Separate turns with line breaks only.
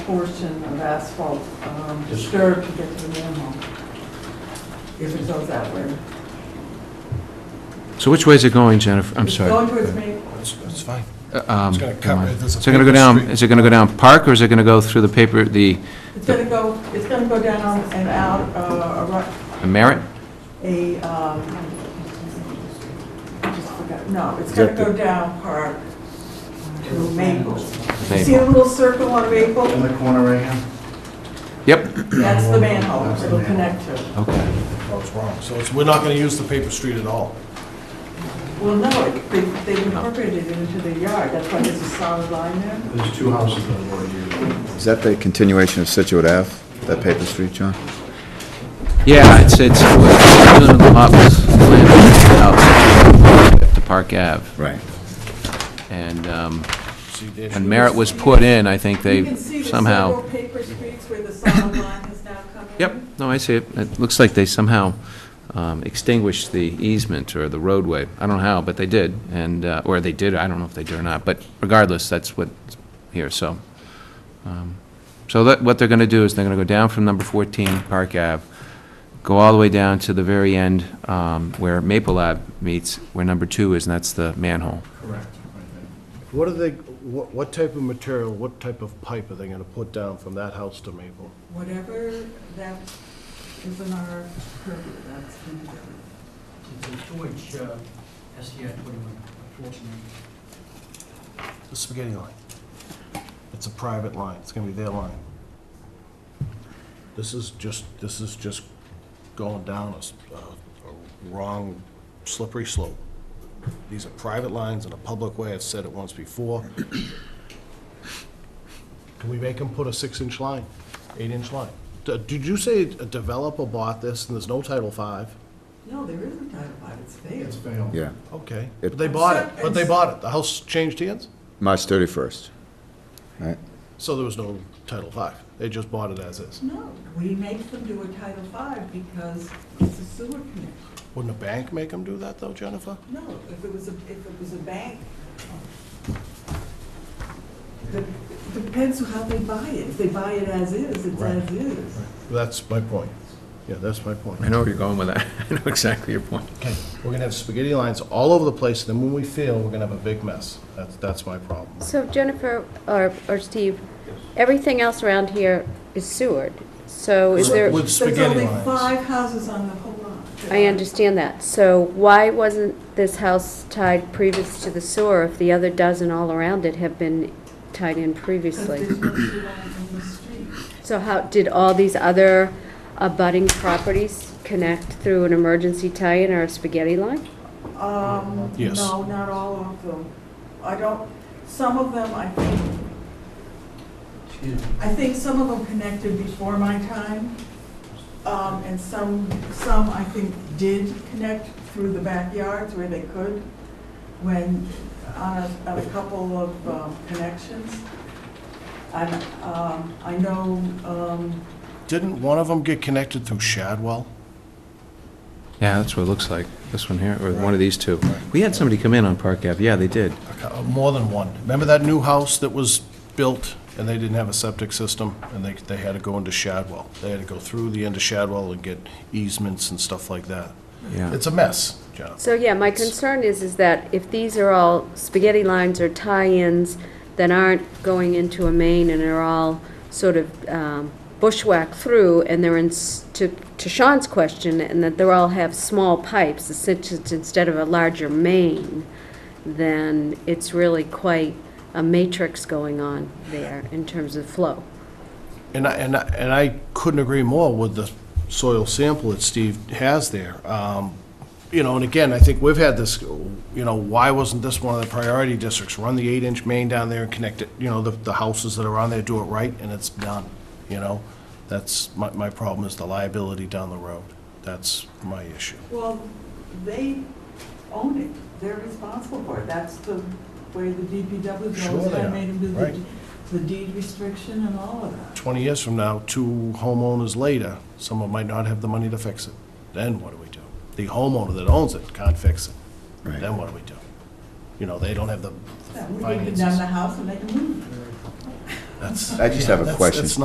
portion of asphalt um,
Just-
disturbed to get to the manhole. If it goes that way.
So which way is it going, Jennifer? I'm
It's
sorry.
Going towards Maple.
That's, that's fine.
Um,
It's gonna cut
come on.
right- there's a
Is it gonna go
paper
down,
street.
is it gonna go down Park, or is it gonna go through the paper, the
It's gonna go, it's gonna go down and out, uh, around-
the Merritt?
a, um, I just forgot, no, it's
Is
gonna
that
go
the-
down Park to Maple. You see
Maple.
the little circle on
In
Maple?
the corner right here?
Yep,
That's the manhole
That's the
it'll
manhole.
connect to.
okay.
No, it's wrong. So it's, we're not gonna use the paper street at all.
Well, no, it- they,
Oh.
they incorporated it into the yard, that's why there's a solid line there.
There's two houses that are already here.
Is that the continuation of Situate Ave, that paper street, John?
Yeah, it's, it's, we're doing the lot was planned out to Park Ave,
Right.
and um,
See, there's-
when Merritt was put in, I think
You
they
can see the
somehow...
several paper streets where the solid line has now come in.
Yep, no, I see it. It looks like they somehow um, extinguished the easement or the roadway. I don't know how, but they did, and, uh, or they did, I don't know if they did or not, but regardless, that's what, here, so. um, So that, what they're going to do is they're going to go down from number 14 Park Ave, go all the way down to the very end um, where Maple Ave meets, where number two is, and that's the manhole.
Correct.
What are they, what, what type of material, what type of pipe are they gonna put down from that house to Maple?
Whatever that is in our purview, that's been done.
It's a storage, uh, SDI twenty-one, unfortunately.
The spaghetti line. It's a private line. It's gonna be their line. This is just, this is just going down a s- a, a wrong slippery slope. These are private lines in a public way. I've said it once before. Can we make them put a six-inch line, eight-inch line? D- Did you say a developer bought this and there's no Title Five?
No, there isn't Title V, it's there.
It's failed.
Yeah,
Okay,
It-
but they bought it, but they bought it, the house changed hands,
March 31st, right?
so there was no Title Five. they just bought it as is.
No, we make them do a Title V because it's a sewer connection.
Wouldn't a bank make them do that though, Jennifer?
No, if it was a, if it was a bank. Dep- Depends on how they buy it. If they buy it as is, it's
Right.
as is.
That's my point, yeah, that's my point.
I know where you're going with that. I know exactly your point.
Okay, we're gonna have spaghetti lines all over the place, and then when we fail, we're gonna have a big mess, that's, that's my problem.
So Jennifer or, or Steve, everything else around here is sewered. So is there,
With spaghetti
Oh, There's only
lines.
five houses on the whole lot.
I understand that. So why wasn't this house tied previous to the sewer if the other dozen all around it have been tied in
Because
previously?
there's no sewer line in the street.
So how, did all these other abutting properties connect through an emergency tie-in or a spaghetti line?
Um,
Yes.
No, not all of them. I don't, some of them, I think,
Excuse me.
I think some of them connected before my time, um, and some, some I think did connect through the backyards where they could, when, on a, on a couple of um, connections. And, um, I know, um,
Didn't one of them get connected through Shadwell?
Yeah, that's what it looks like, this one here, or one of these two. We had somebody come in on Park Ave, yeah, they did.
Uh, More than one, remember that new house that was built, and they didn't have a septic system, and they, they had to go into Shadwell, they had to go through the end of Shadwell and get easements and stuff like that.
Yeah.
It's a mess, John.
So, yeah, my concern is, is that if these are all spaghetti lines or tie-ins that aren't going into a main and are all sort of um, bushwhacked through, and they're in, s- to to Sean's question, and that they're all have small pipes, it's just instead of a larger main, then it's really quite a matrix going on there in terms of flow.
And I, and I, and I couldn't agree more with the soil sample that Steve has there. Um, You know, and again, I think we've had this, you know, why wasn't this one of the priority districts? Run the eight-inch main down there and connect it, you know, the, the houses that are on there, do it right, and it's done, you know? That's, my, my problem is the liability down the road. That's my issue.
well, they own it, they're responsible for it, that's the way the DPW goes.
Sure they
I
are,
made them do the
right.
d- the deed restriction and all of that.
Twenty years from now, two homeowners later, someone might not have the money to fix it. Then what do we do? The homeowner that owns it can't fix it.
Right.
Then what do we do? You know, they don't have the the
Yeah, We can condemn
finances.
the house and they can move.
That's.
I just have a
that's-
question.
that's